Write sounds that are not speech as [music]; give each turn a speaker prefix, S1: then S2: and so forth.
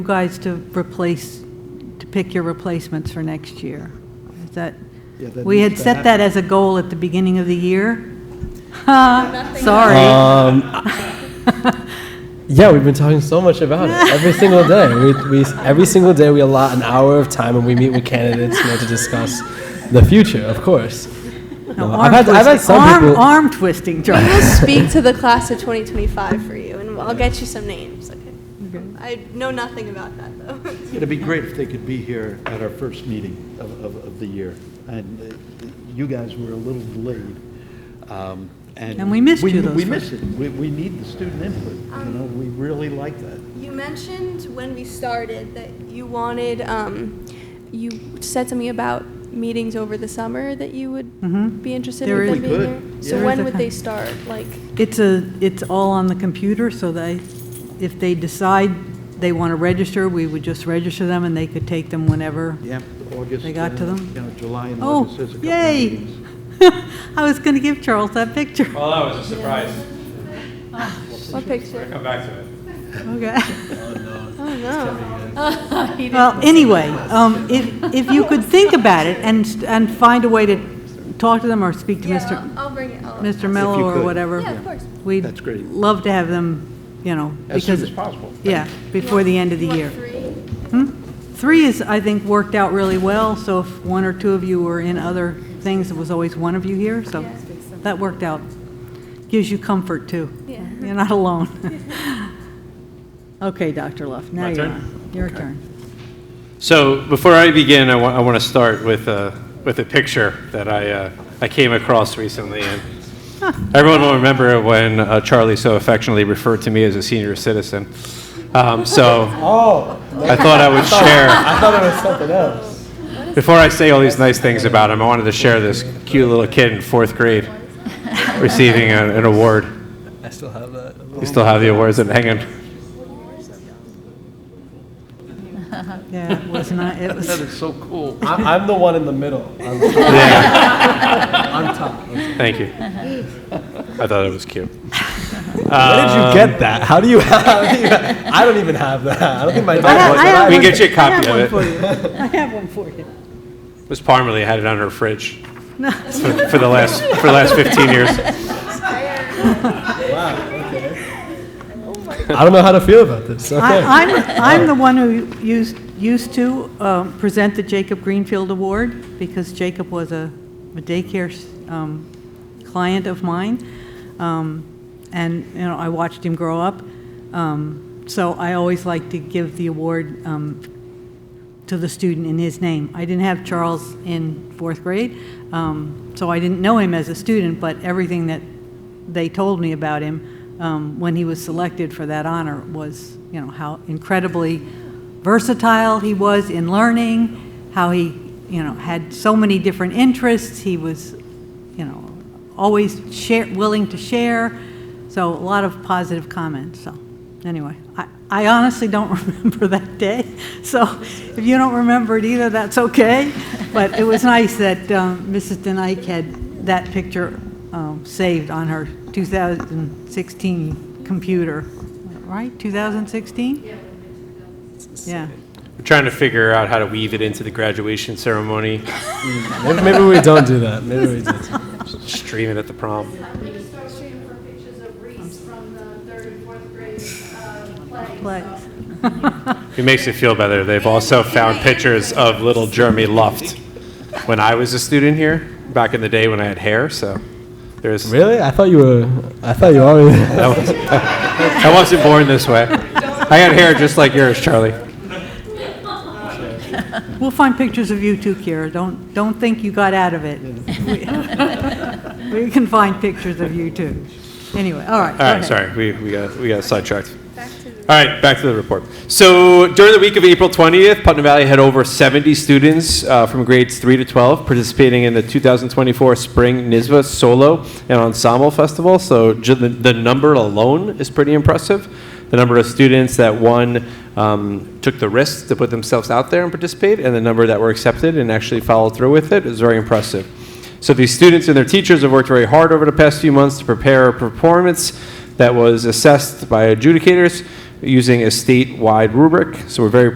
S1: you guys to replace, to pick your replacements for next year. Is that,
S2: Yeah, that
S1: we had
S2: needs to
S1: set that as a goal at the beginning of the year. [laughs] Sorry.
S3: Um, yeah, we've been talking so much about it
S1: [laughs]
S3: every single day. We, we, every single day we allot an hour of time and we meet with candidates you know, to discuss the future, of course.
S1: No,
S3: I've
S1: arm
S3: had- I've had
S1: twisting.
S3: some
S1: Arm-
S3: people-
S1: Arm twisting,
S3: [laughs]
S1: [laughs]
S4: We
S1: Charlie.
S4: will speak to the class of 2025 for you, and I'll get you some names, okay? I know nothing about that, though.
S2: It'd be great if they could be here at our first meeting of, of, of the year. And uh, you guys were a little delayed. um,
S1: And we missed you those
S2: We
S1: first-
S2: miss it. We, we need the student input, you know, we really like that.
S4: You mentioned when we started that you wanted, um, you said something about meetings over the summer that you
S1: Mm-hmm.
S4: would be interested
S1: There
S4: in
S1: is-
S4: them
S1: We
S4: being
S2: could,
S4: there.
S2: yeah.
S4: So
S1: There is a
S4: when would they
S1: con-
S4: start? Like,
S1: It's a, it's all on the computer, so they, if they decide they want to register, we would just register them and they could take them whenever.
S2: Yeah. August.
S1: They got to
S2: uh,
S1: them?
S2: You know, July and
S1: Oh,
S2: August, there's a couple of
S1: yay!
S2: meetings.
S1: [laughs] I was going to give Charles that
S2: [laughs]
S1: picture.
S5: Well, that was a surprise.
S4: what
S5: We're gonna
S4: picture?
S5: come back to it.
S1: Okay.
S4: Oh, no.
S1: Well, anyway, um, if, if you could think about it and, and find a way to talk to them or speak to
S4: Yeah,
S1: Mr.
S4: I'll- I'll bring it. I'll-
S1: Mr. Mello
S2: you
S1: or
S2: could.
S1: whatever.
S4: Yeah, of course.
S1: We'd
S2: That's great.
S1: love to have them, you know,
S2: As soon as
S1: because,
S2: possible.
S1: yeah, before the end of the
S4: You want
S1: year. Hmm?
S4: three?
S1: Three is, I think, worked out really well, so if one or two of you were in other things, it was always one of you here, so
S4: Yeah.
S1: that worked out. Gives you comfort, too.
S4: Yeah.
S1: You're not alone. [laughs] Okay, Dr. Luff, now
S5: My
S1: you're
S5: turn?
S1: on. Your turn.
S5: So before I begin, I want, I want to start with a, with a picture that I, uh, I came across recently. And everyone will remember when uh, Charlie so affectionately referred to me as a senior citizen. Um, so
S3: [laughs] Oh,
S5: I thought I would
S3: [laughs]
S5: share,
S3: I thought it was something else.
S5: before I say all these nice things about him, I wanted to share this cute little kid in
S3: [laughs]
S5: fourth grade receiving an, an award.
S3: I still have that.
S5: You still have the awards and hanging.
S1: Yeah, it was not, it was,
S2: That is so cool.
S3: I'm, I'm the one in the middle. I'm,
S5: Yeah.
S3: I'm top. Where did
S5: Thank you. I thought it was cute. Um,
S3: you get that? How do you have? How do you have I don't even have that. I don't think my
S1: I
S3: dad
S1: have-
S3: was
S1: I have
S5: We
S1: one-
S5: can get you a
S1: I have
S5: copy of
S1: one for
S5: it.
S1: you. [laughs] I have one for you.
S5: Miss Parmalee had it on her fridge for, for the last for the last 15 years.
S3: I don't know how to feel about this. Okay.
S1: I- I'm, I'm the one who used, used to um, present the Jacob Greenfield Award, because Jacob was a a daycare um, client of mine, Um, and, you know, I watched him grow up. Um, So I always like to give the award um, to the student in his name. I didn't have Charles in fourth grade, um, so I didn't know him as a student, but everything that they told me about him um, when he was selected for that honor was, you know, how incredibly versatile he was in learning, how he, you know, had so many different interests. He was, you know, always share, willing to share. So a lot of positive comments. So anyway, I, I honestly don't [laughs] remember that day. So if you don't remember it either, that's okay. But it was nice that um, Mrs. Denike had that picture um, saved on her 2016 computer, right? 2016? Yeah. Yeah.
S5: We're trying to figure out how to weave it into the graduation ceremony,
S3: maybe, maybe we don't do that. Maybe we do.
S5: stream it at the prom.
S6: I think you start shooting for pictures of Reese from the third and fourth grade uh, play.
S1: Flags.
S5: It makes me feel better. They've also found pictures of little Jeremy Luft when I was a student here back in the day when I had hair. So there's
S3: Really? I thought you were. I thought you already.
S5: I was- [laughs] I wasn't born this way. I had hair just like yours, Charlie.
S1: We'll find pictures of you too, Kira. Don't, don't think you got out of it. [laughs] We can find pictures of you too. Anyway, all right. go
S5: All right,
S1: ahead.
S5: sorry, we, we got, we got sidetracked. All right, back to the report. So during the week of April 20th, Putnam Valley had over 70 students uh, from grades 3 to 12 participating in the 2024 Spring NISVA Solo and Ensemble Festival. So ju- the, the number alone is pretty impressive. The number of students that one um, took the risk to put themselves out there and participate, and the number that were accepted and actually followed through with it is very impressive. So these students and their teachers have worked very hard over the past few months to prepare a performance that was assessed by adjudicators using a statewide rubric. So we're very